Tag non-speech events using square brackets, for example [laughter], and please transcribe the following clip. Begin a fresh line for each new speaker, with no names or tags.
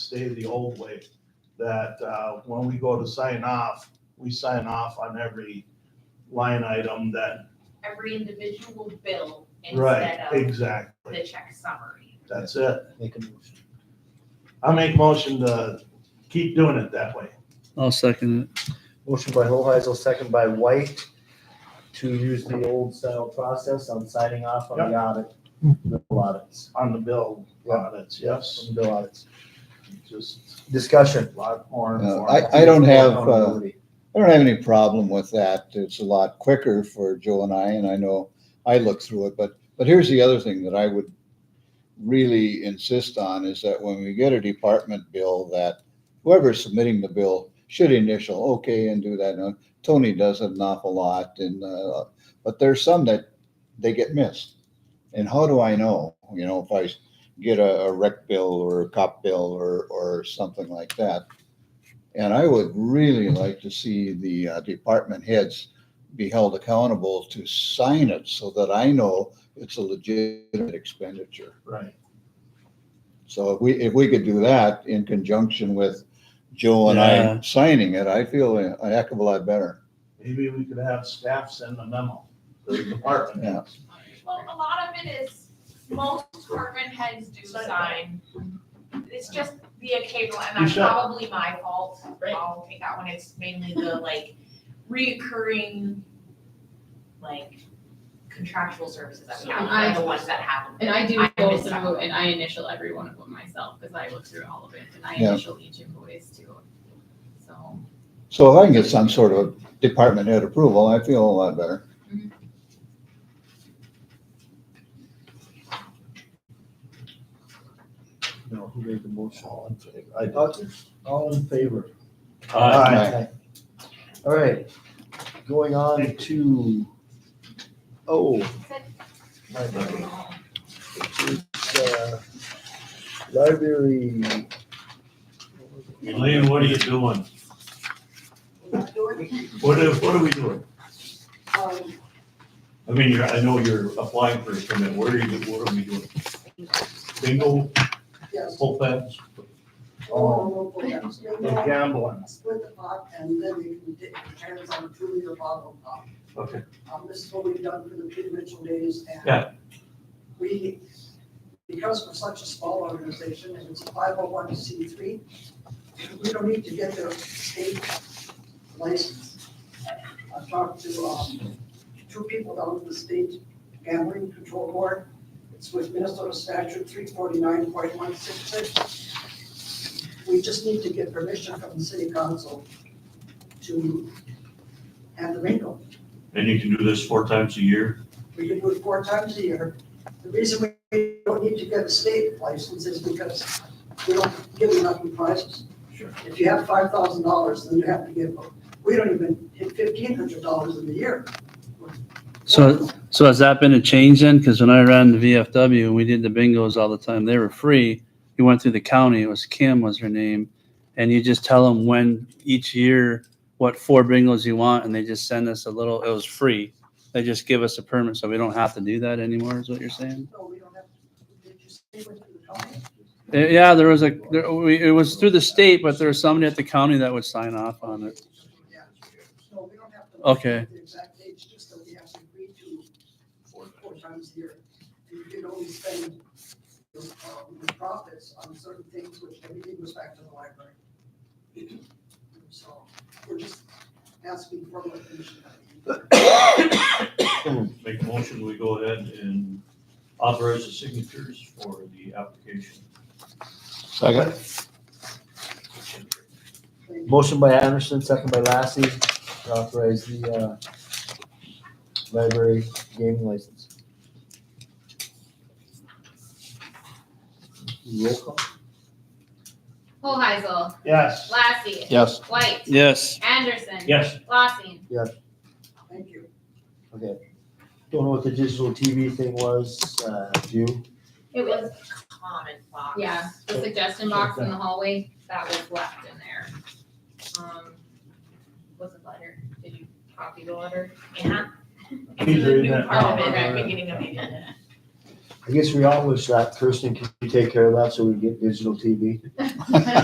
stay the old way, that uh, when we go to sign off, we sign off on every line item that,
every individual bill
right,
instead of
exactly.
the check summary.
That's it.
Make a motion.
I make motion to keep doing it that way.
I'll second it.
Motion by Hoheisel, second by White, to use the old style process on signing off on the audit, bill audits,
On the bill, audits, yes,
on bill audits.
just
Discussion.
a lot more.
Uh,
informative.
I don't have, uh,
Accountability.
I don't have any problem with that. It's a lot quicker for Joe and I, and I know I look through it, but, but here's the other thing that I would really insist on is that when we get a department bill that whoever's submitting the bill should initial okay and do that. Now, Tony does it an awful lot and, uh, but there's some that they get missed. And how do I know, you know, if I s- get a, a rec bill or a cop bill or, or something like that? And I would really like to see the uh, department heads be held accountable to sign it so that I know it's a legitimate expenditure.
Right,
So if we, if we could do that in conjunction with Joe and I
Yeah.
signing it, I feel a a heck of a lot better.
maybe we could have staff send a memo to the department.
Yeah.
Well, a lot of it is, most department heads do sign. It's just the occasional,
You
and that's
should.
probably my fault.
Right.
I'll take that one. It's mainly the like reoccurring, like contractual services that we have, are the ones that happen.
And I do
I
go
miss out.
through and I initial every one of them myself, because I look through all of it and I
Yeah.
initial each invoice too. So,
So if I can get some sort of department head approval, I feel a lot better.
No, who made the motion?
All in favor? I-
Uh, All in favor?
Aye.
All right, going on to, oh, my bad. It's, uh, Library.
Elaine, what are you doing? What are, what are we doing? I mean, you're, I know you're applying for a permit, what are you, what are we doing? Bingo,
Yes,
full pass?
all
The gambling.
Split the pot and then you can get your hands on a two liter bottle of pop.
Okay.
Um, this is what we've done for the Peter Mitchell days and.
Yeah.
We, because we're such a small organization and it's a five oh one C three, we don't need to get their state license. I've talked to, um, two people down at the state gambling control board. It's with Minnesota statute three forty-nine point one six six. We just need to get permission from the city council to have the bingo.
And you can do this four times a year?
We can do it four times a year. The reason we don't need to get a state license is because we don't give enough in prizes.
Sure.
If you have five thousand dollars, then you have to give, we don't even hit fifteen hundred dollars in a year.
So, so has that been a change then? Because when I ran the VFW and we did the bingos all the time, they were free. You went through the county, it was Kim was her name, and you just tell them when each year, what four bingos you want, and they just send us a little, it was free. They just give us a permit, so we don't have to do that anymore, is what you're saying?
No, we don't have, did you say what you were talking?
Uh, Yeah, there was a, there, we, it was through the state, but there was somebody at the county that would sign off on it.
Yeah. No, we don't have to.
Okay.
The exact dates, just that we have to agree to four, four times a year. And you can only spend the um, the profits on certain things, which everything goes back to the library. So we're just asking for the permission.
Make a motion, we go ahead and authorize the signatures for the application.
[laughs] Second.
Motion by Anderson, second by Lassie, to authorize the, uh, library gaming license. Roll call.
Hoheisel,
Yes.
Lassie,
Yes.
White,
Yes.
Anderson.
Yes.
Lossing.
Thank you.
Don't know what the digital TV thing was, uh, do you?
It was common box.
Yeah, the suggestion box in the hallway, that was left in there. Um, Was it letter? Did you copy the letter?
Yeah.
He's
It's a
reading
new
that
part
now.
Oh,
of it at the beginning of the agenda.
I guess we all wish that. Kirsten, could you take care of that so we get digital TV?